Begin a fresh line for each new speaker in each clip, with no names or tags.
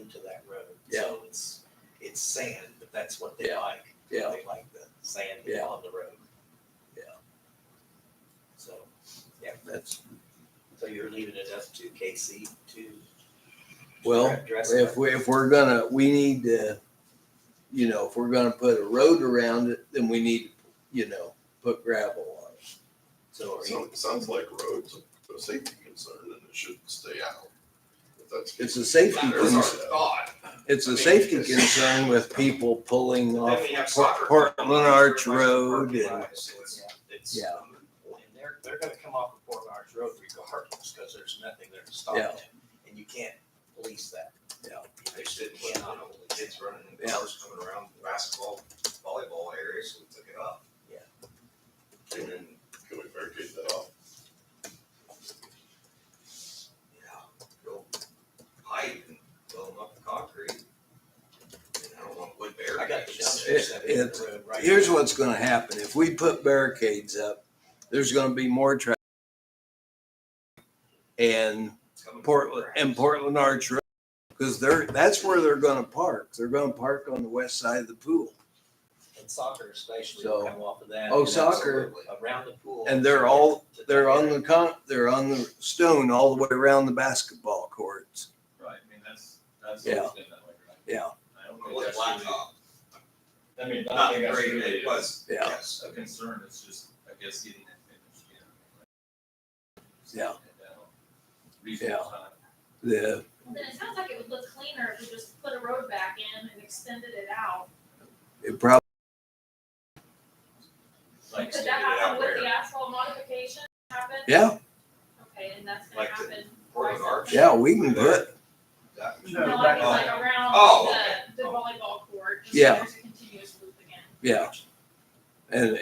to that road.
Yeah.
So it's, it's sand, but that's what they
Yeah.
like.
Yeah.
They like the sand
Yeah.
on the road.
Yeah.
So, yeah,
That's,
so you're leaving it up to KC to
well,
address that?
if we, if we're gonna, we need to, you know, if we're gonna put a road around it, then we need, to, you know, put gravel on it.
So are
So
you,
it sounds like roads are a safety concern and it should stay out. If that's.
It's a safety
There's our
concern.
thought.
It's
I
a
mean,
safety
it's-
concern with people pulling
Then
off
we have
Port-
soccer.
Portland Arch Road and,
right, so it's, it's.
Yeah.
And they're, they're gonna come off of Port Orange Road regardless, because there's nothing there to stop
Yeah.
them, and you can't police that.
Yeah.
They shouldn't, you know,
kids running and
Yeah.
cars coming around basketball, volleyball areas, we took it up.
Yeah.
And then,
Can we barricade that off?
you know, go pipe and fill them up with concrete. And I don't want wood barriers.
I got the dumpster
It-
set in
it's-
the road right.
here's what's gonna happen. If we put barricades up, there's gonna be more traffic. And
It's coming from
Portland
grass.
and Portland Arch Road, because they're, that's where they're gonna park. They're gonna park on the west side of the pool.
And soccer especially
So-
will come off of that.
Oh,
and
soccer.
absolutely Around the pool.
And they're all- They're on the con, they're on the stone all the way around the basketball courts.
Right, I mean, that's, that's.
Yeah.
staying that way, right?
Yeah,
I don't
It
think
was
that's really-
blacktop,
I mean, I
not
don't think that's
great,
really
it was,
Yeah.
yes.
a concern, it's just, I guess, getting that finished, you know. like,
Yeah.
and, uh, Reasonable time.
the,
Then it sounds like it would look cleaner if we just put a road back in and extended it out.
it probably,
Like,
Could
extended
that
it out
happen with
where?
the asphalt modification happen?
yeah,
Okay, and that's gonna
Like the
happen.
Portland
twice a
Arch?
year?
yeah, we can put,
That-
No, I mean like
Oh,
around
okay.
the, the volleyball court, just so
Yeah.
there's a continuous loop again.
yeah. And,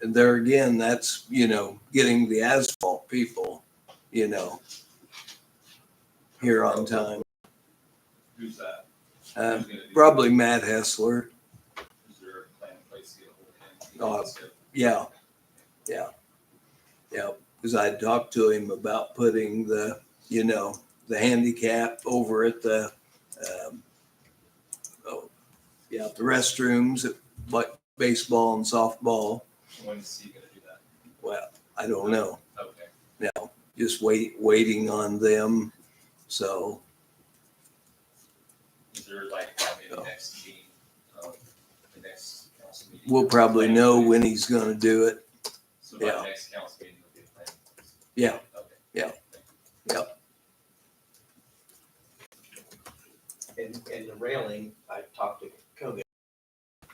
and there again, that's, you know, getting the asphalt people, you know, here on time.
Who's that?
Uh,
Who's gonna do that?
probably Matt Hessler,
Is there a plan in place to get a hold
Oh,
of him?
yeah. Yeah, because I talked to him about putting the, you know, the handicap over at the, um, oh, yeah, the restrooms, like baseball and softball.
When's he gonna do that?
Well, I don't know,
Okay,
just wait, waiting on them. So,
is there like, probably the
Oh.
next meeting, um, the next council meeting?
we'll probably know when he's gonna do it.
So by
yeah.
the next council meeting, will be a plan. in place?
Yeah.
Okay.
Yeah.
And, and the railing, I talked to Kogan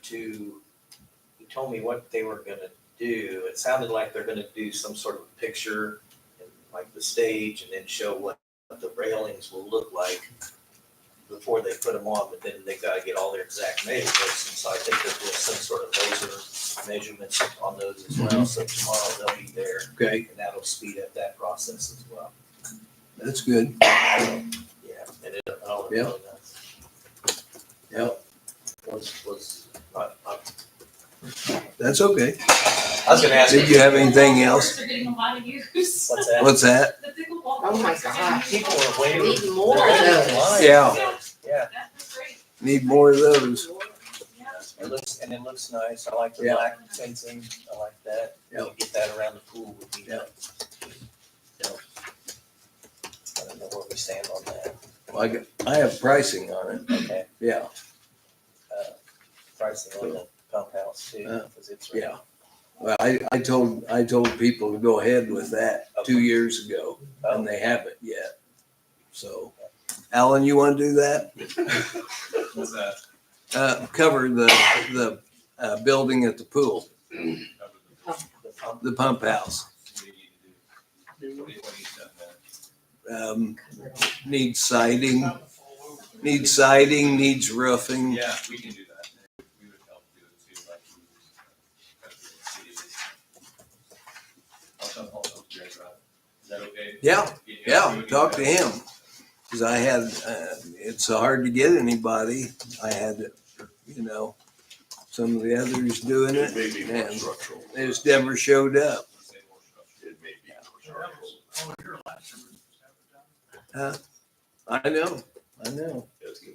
to, he told me what they were gonna do. It sounded like they're gonna do some sort of picture, and like the stage, and then show what the railings will look like before they put them on, but then they gotta get all their exact measurements, and so I think there's some sort of laser measurements on those as well, so tomorrow they'll be there,
Okay,
and that'll speed up that process as well.
that's good.
Yeah, and it, all
Yeah.
really nice.
Yep,
was was not, not
that's okay.
I was gonna ask
Did you have anything
Pickleball
else?
courts Are getting a lot of use.
what's that?
What's that?
The pickleball.
Oh my
courts are getting
God,
used
people are waiting.
all the time.
We Need more of those.
Yeah,
Yeah,
That's great,
need more of those.
yeah.
it looks and it looks nice. I like the
Yeah.
black fencing. I like that.
Yeah.
You Get that around the pool would be.
Yeah.
Yeah. I don't know where we stand on that.
I, got- I have pricing on it.
Okay,
Yeah,
uh, pricing on the pump house too,
Uh,
because it's.
yeah. Well, I, I told, I told people to go ahead with that two years ago
Oh,
and they haven't yet. So, Alan, you want to do that?
What's that?
Uh, cover the, the, uh, building at the pool,
Cover the-
the pump,
the pump house.
What do you need to do? What do you what do you send that?
Um, needs siding, needs siding, needs roofing.
Yeah, we can do that. We would help do it too, like. we would, uh, cut the cities. I'll talk, I'll talk to Greg about it. Is that okay?
Yeah,
we
yeah,
would
talk to
do that.
him. Cause I had, uh, it's hard to get anybody. I had, you know, some of the others doing it.
It may be more
Man.
structural.
They just never showed up.
Say more structure.
It may be more structural.
I know, I know.
It's-